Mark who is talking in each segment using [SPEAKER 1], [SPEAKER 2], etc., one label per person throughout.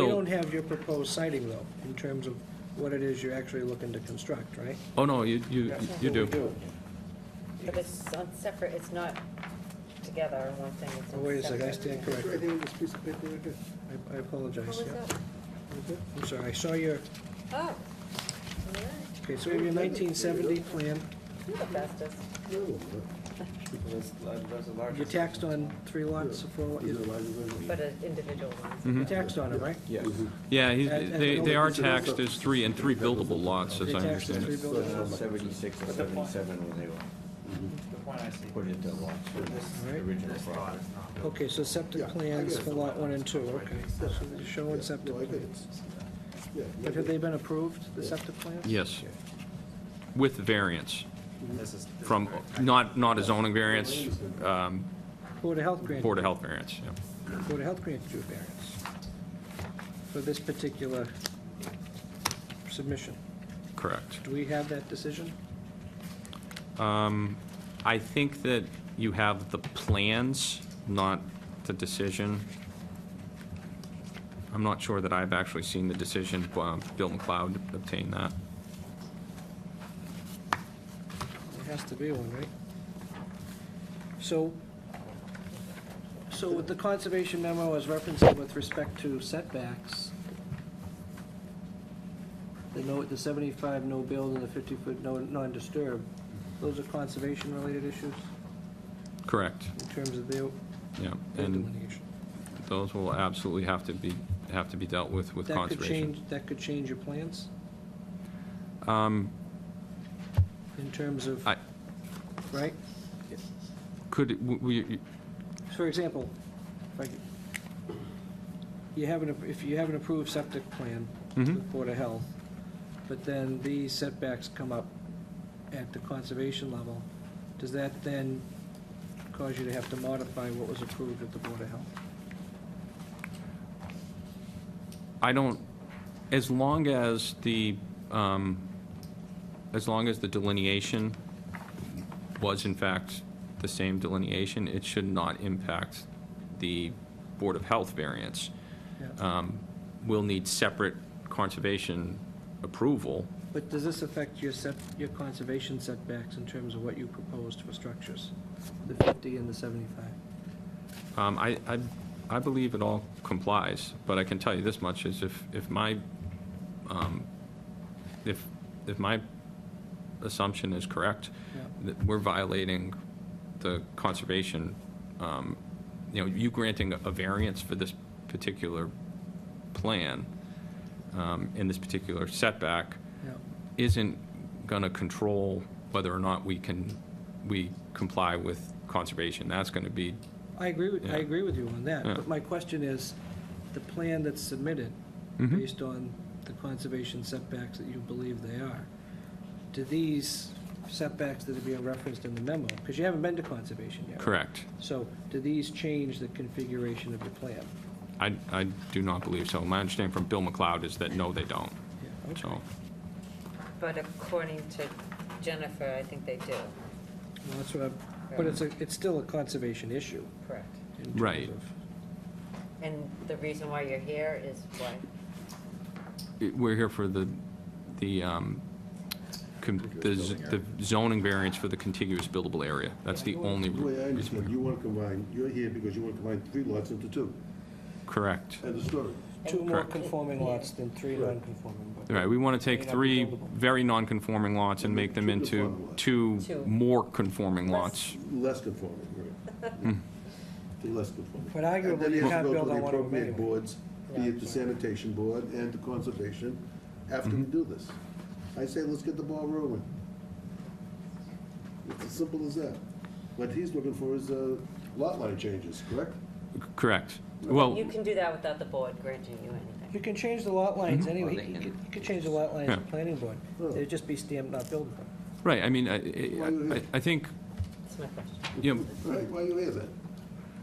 [SPEAKER 1] We
[SPEAKER 2] Bill,
[SPEAKER 1] don't have your proposed sighting though, in terms of what it is you're actually looking to construct, right?
[SPEAKER 2] oh, no, you, you, you
[SPEAKER 1] Well, we
[SPEAKER 2] do.
[SPEAKER 3] But it's on separate, it's not together, one thing, it's
[SPEAKER 1] Oh,
[SPEAKER 3] on
[SPEAKER 1] wait a second, I
[SPEAKER 3] separate.
[SPEAKER 1] stand corrected.
[SPEAKER 4] think this piece of paper right here.
[SPEAKER 1] I- I
[SPEAKER 3] What
[SPEAKER 1] apologize,
[SPEAKER 3] was
[SPEAKER 1] yeah.
[SPEAKER 3] that?
[SPEAKER 1] I'm sorry, I saw your,
[SPEAKER 3] Oh.
[SPEAKER 1] okay, so we have your 1970 plan.
[SPEAKER 3] You're the bestest.
[SPEAKER 5] That's, that's the
[SPEAKER 1] You
[SPEAKER 5] largest.
[SPEAKER 1] taxed on three lots, four lots, you
[SPEAKER 3] But an individual
[SPEAKER 1] Hmm.
[SPEAKER 3] one.
[SPEAKER 2] Mhm.
[SPEAKER 1] taxed on it, right?
[SPEAKER 5] Yes.
[SPEAKER 2] Yeah, he's-
[SPEAKER 1] As- as
[SPEAKER 2] they,
[SPEAKER 1] an
[SPEAKER 2] they
[SPEAKER 1] old
[SPEAKER 2] are
[SPEAKER 1] piece of
[SPEAKER 2] taxed as three, and three buildable lots, as
[SPEAKER 1] They
[SPEAKER 2] I
[SPEAKER 1] taxed the
[SPEAKER 2] understand
[SPEAKER 1] three
[SPEAKER 2] it.
[SPEAKER 1] building lots.
[SPEAKER 5] Seventy-six or seventy-seven when they were
[SPEAKER 6] The point I see.
[SPEAKER 5] put into law, so this
[SPEAKER 1] All right.
[SPEAKER 5] original property.
[SPEAKER 1] Okay, so septic
[SPEAKER 4] Yeah, I
[SPEAKER 1] plans
[SPEAKER 4] get it.
[SPEAKER 1] for lot one and two, okay. So you're showing septic plans. But have they been approved, the septic plans?
[SPEAKER 2] Yes. With variance
[SPEAKER 6] This is- this is
[SPEAKER 2] from,
[SPEAKER 6] very-
[SPEAKER 2] not, not a zoning variance, um,
[SPEAKER 1] Board of Health granted.
[SPEAKER 2] Board of Health variance, yeah.
[SPEAKER 1] Board of Health granted you a variance for this particular submission.
[SPEAKER 2] correct.
[SPEAKER 1] Do we have that decision?
[SPEAKER 2] Um, I think that you have the plans, not the decision. I'm not sure that I've actually seen the decision, um, Bill McLeod obtained that.
[SPEAKER 1] There has to be one, right? So, so with the conservation memo as referencing with respect to setbacks, the no, the seventy-five no build and the fifty-foot no, non-disturb, those are conservation-related issues
[SPEAKER 2] Correct,
[SPEAKER 1] in terms of their
[SPEAKER 2] yeah.
[SPEAKER 1] their
[SPEAKER 2] And
[SPEAKER 1] delineation?
[SPEAKER 2] Those will absolutely have to be, have to be dealt with, with
[SPEAKER 1] That could
[SPEAKER 2] conservation.
[SPEAKER 1] change, that could change your plans
[SPEAKER 2] Um,
[SPEAKER 1] in terms of,
[SPEAKER 2] I-
[SPEAKER 1] right?
[SPEAKER 2] Could, it- w- we,
[SPEAKER 1] For example, if I could- you have an, if you have an approved septic plan with
[SPEAKER 2] Mhm.
[SPEAKER 1] Board of Health, but then these setbacks come up at the conservation level, does that then cause you to have to modify what was approved at the Board of Health?
[SPEAKER 2] I don't, as long as the, um, as long as the delineation was in fact the same delineation, it should not impact the Board of Health variance.
[SPEAKER 1] Yeah.
[SPEAKER 2] Um, We'll need separate conservation approval.
[SPEAKER 1] But does this affect your set, your conservation setbacks in terms of what you proposed for structures? The 50 and the 75?
[SPEAKER 2] Um, I, I, I believe it all complies, but I can tell you this much, is if, if my, um, if, if my assumption is correct,
[SPEAKER 1] Yeah.
[SPEAKER 2] that we're violating the conservation, um, you know, you granting a variance for this particular plan, um, in this particular setback,
[SPEAKER 1] Yeah.
[SPEAKER 2] isn't going to control whether or not we can, we comply with conservation. That's going to be
[SPEAKER 1] I agree, with I
[SPEAKER 2] Yeah.
[SPEAKER 1] agree with you on that,
[SPEAKER 2] Yeah.
[SPEAKER 1] but my question is, the plan that's submitted,
[SPEAKER 2] Mhm.
[SPEAKER 1] based on the conservation setbacks that you believe they are, do these setbacks that are being referenced in the memo, because you haven't been to conservation yet? right?
[SPEAKER 2] correct.
[SPEAKER 1] So do these change the configuration of your plan?
[SPEAKER 2] I, I do not believe so. My understanding from Bill McLeod is that, no, they don't.
[SPEAKER 1] Yeah, okay.
[SPEAKER 2] So,
[SPEAKER 3] But according to Jennifer, I think they do,
[SPEAKER 1] Well, that's what I'm, but it's, a it's still a conservation issue.
[SPEAKER 3] correct.
[SPEAKER 1] in terms
[SPEAKER 2] Right.
[SPEAKER 1] of-
[SPEAKER 3] And the reason why you're here is why?
[SPEAKER 2] it- we're here for the, the, um, com- the z- the zoning variance for the contiguous buildable area. That's the only
[SPEAKER 4] The way I
[SPEAKER 2] reason.
[SPEAKER 4] understand,
[SPEAKER 2] we're-
[SPEAKER 4] you want to combine, you're here because you want to combine three lots into two.
[SPEAKER 2] Correct.
[SPEAKER 4] End of story.
[SPEAKER 1] Two more
[SPEAKER 2] Correct.
[SPEAKER 1] conforming lots than three non-conforming. but-
[SPEAKER 2] All right, we want to take
[SPEAKER 1] May not be
[SPEAKER 2] three
[SPEAKER 1] buildable.
[SPEAKER 2] very non-conforming lots and make them
[SPEAKER 4] Two
[SPEAKER 2] into
[SPEAKER 4] conforming lots.
[SPEAKER 2] two
[SPEAKER 3] Two.
[SPEAKER 2] more conforming
[SPEAKER 3] Less.
[SPEAKER 2] lots.
[SPEAKER 4] Less conforming, right.
[SPEAKER 2] Hmm.
[SPEAKER 4] To less conforming.
[SPEAKER 1] But arguably,
[SPEAKER 4] And then
[SPEAKER 1] you
[SPEAKER 4] has to
[SPEAKER 1] can't
[SPEAKER 4] go to
[SPEAKER 1] build
[SPEAKER 4] the
[SPEAKER 1] on one of them
[SPEAKER 4] appropriate
[SPEAKER 1] anyway.
[SPEAKER 4] Boards, be
[SPEAKER 3] Yeah.
[SPEAKER 4] it the sanitation board and the conservation, after we do this. I say, let's get the ball rolling. It's as simple as that. What he's looking for is uh, lot line changes, correct?
[SPEAKER 2] Correct. Well,
[SPEAKER 3] You can do that without the board granting you anything.
[SPEAKER 1] You can change the lot lines anyway,
[SPEAKER 5] Well, they
[SPEAKER 1] you
[SPEAKER 5] can-
[SPEAKER 1] could- you could change the lot lines
[SPEAKER 2] Yeah.
[SPEAKER 1] of planning board,
[SPEAKER 4] Oh.
[SPEAKER 1] it'd just be stamped not buildable.
[SPEAKER 2] right, I mean, I- I, I- I think,
[SPEAKER 3] That's my question.
[SPEAKER 2] you know,
[SPEAKER 4] Right, why you here then?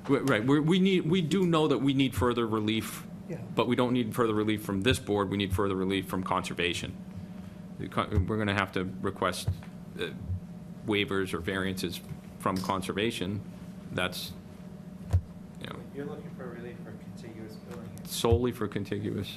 [SPEAKER 2] Right, Right, We're- we need, we do know that we need further relief,
[SPEAKER 1] Yeah.
[SPEAKER 2] but we don't need further relief from this board, we need further relief from conservation. The con- We're going to have to request uh, waivers or variances from conservation, that's, you know,
[SPEAKER 6] You're looking for relief for contiguous building. areas.
[SPEAKER 2] solely for contiguous